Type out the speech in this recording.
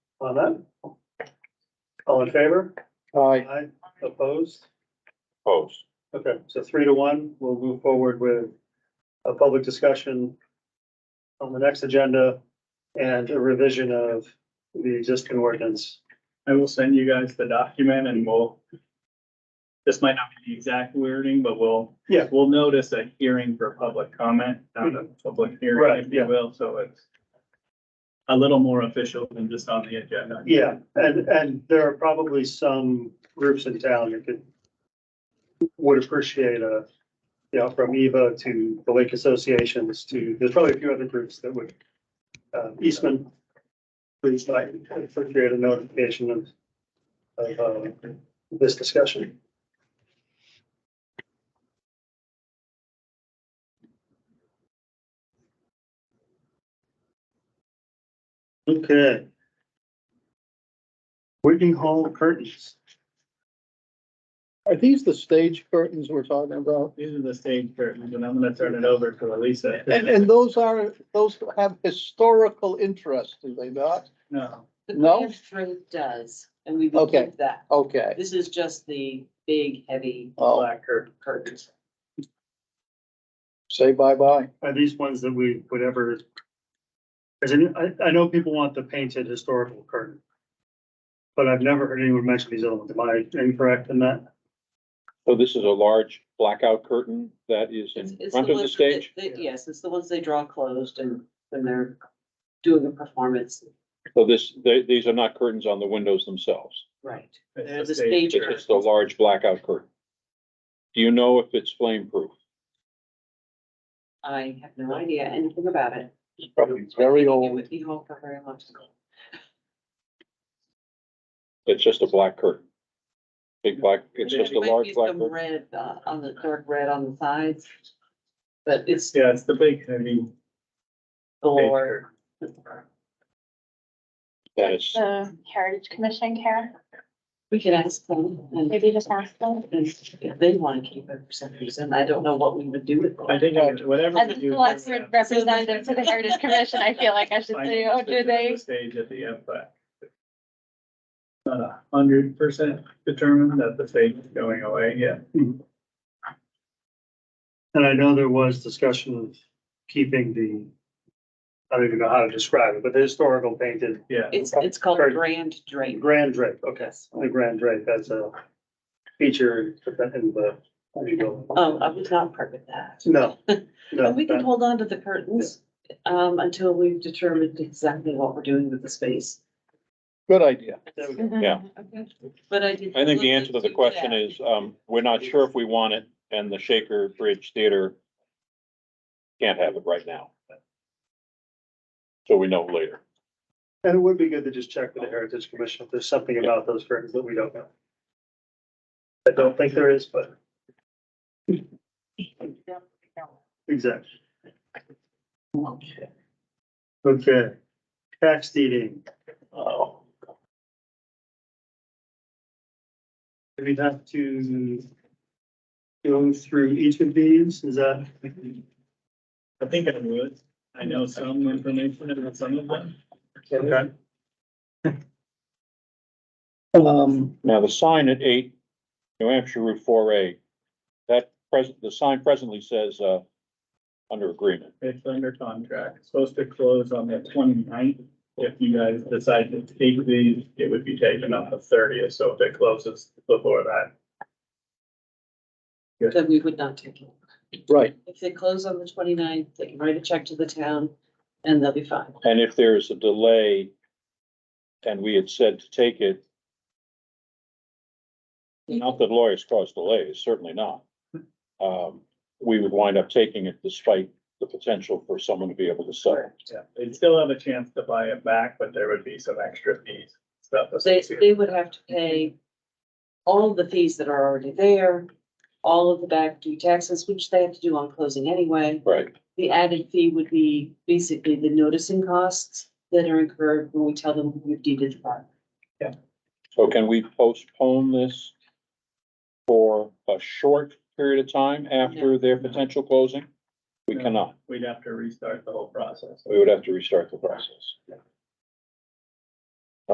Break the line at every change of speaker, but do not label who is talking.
on that? All in favor?
Aye.
Aye. Opposed?
Opposed.
Okay, so three to one, we'll move forward with a public discussion on the next agenda and a revision of the existing ordinance.
I will send you guys the document and we'll. This might not be the exact wording, but we'll.
Yeah. Mm-hmm.
We'll notice a hearing for public comment, not a public
Right,
hearing, if
yeah.
you will, so it's. A little more official than just on the agenda.
Yeah, and, and there are probably some groups in town that could, would appreciate a, you know, from Eva to the lake associations to, there's probably a few other groups that would, uh, Eastman, please, I appreciate a notification of, of, uh, this discussion. Okay. Whitney Hall curtains.
Are these the stage curtains we're talking about?
These are the stage curtains, and I'm gonna turn it over to Elisa.
And, and those are, those have historical interest, do they not?
No,
The
No?
Banff Drake does, and we
Okay.
believe that.
Okay.
This is just the big, heavy
Oh,
black curtain.
curtains.
say bye-bye.
Are these ones that we would ever? As in, I, I know people want the painted historical curtain. But I've never heard anyone mention these other ones. Am I incorrect in that?
So this is a large blackout curtain that is
It's-
in
it's
front of the
ones that-
stage.
that- Yes, it's the ones they draw closed and when they're doing a performance,
So this, they, these are not curtains on the windows themselves.
right.
It's
The stage
It's
curtain.
just a large blackout curtain. Do you know if it's flame proof?
I have no idea anything about it.
Probably very
It
old.
would be home for very long.
It's just a black curtain. Big black, it's just a
There might
large
be
black
some
curtain.
Red, uh, on the dark red on the sides. But it's
Yeah, it's the big heavy. stage
galore.
curtain.
That is,
the Heritage Commission, Karen,
We can ask them and
maybe just ask them.
if they want to keep it for some reason. I don't know what we would do with it.
I think it- whatever.
As
we
the
do,
select
we're gonna
representative to the Heritage Commission, I feel like I should
find
say, oh, do
the
they?
Stage at the end, but. Not a hundred percent determined that the stage is going away yet.
And I know there was discussion of keeping the. I don't even know how to describe it, but the historical painted
Yeah,
It's, it's called
Or-
Grand Drape.
grand drape, okay,
Yes.
the grand drape, that's a feature in the. how do you go?
Um, I was not part of that.
No, no,
But we can
that-
hold on to the curtains, um, until we've determined exactly what we're doing with the space.
Good idea.
there we go.
Yeah.
Okay. But I did.
I think the answer to the question is, um, we're not sure if we want it and the Shaker Bridge Theater can't have it right now. So we know later.
And it would be good to just check with the Heritage Commission if there's something about those curtains that we don't know. I don't think there is, but. Exactly. Okay, tax deeding. Oh. We have to go through each of these, is that?
I think I would. I know some information about some of them.
Okay.
Um,
Now, the sign at eight, New Hampshire Route four A, that present, the sign presently says, uh, under agreement.
It's under contract. It's supposed to close on the 29th. If you guys decide to take these, it would be taken on the thirtieth, so if it closes before that.
Then we would not take it.
right.
If they close on the 29th, they can write a check to the town and they'll be fine.
And if there's a delay and we had said to take it, not that lawyers cause delays, certainly not. Um, we would wind up taking it despite the potential for someone to be able to sell. it.
Yeah, They'd still have a chance to buy it back, but there would be some extra fees, stuff.
They,
associated.
they would have to pay all of the fees that are already there, all of the back due taxes, which they have to do on closing anyway.
Right.
The added fee would be basically the noticing costs that are incurred when we tell them we've deeded the property.
So can we postpone this for a short period of time after their potential closing? We
No.
cannot.
We'd have to restart the whole process.
We would have to restart the process.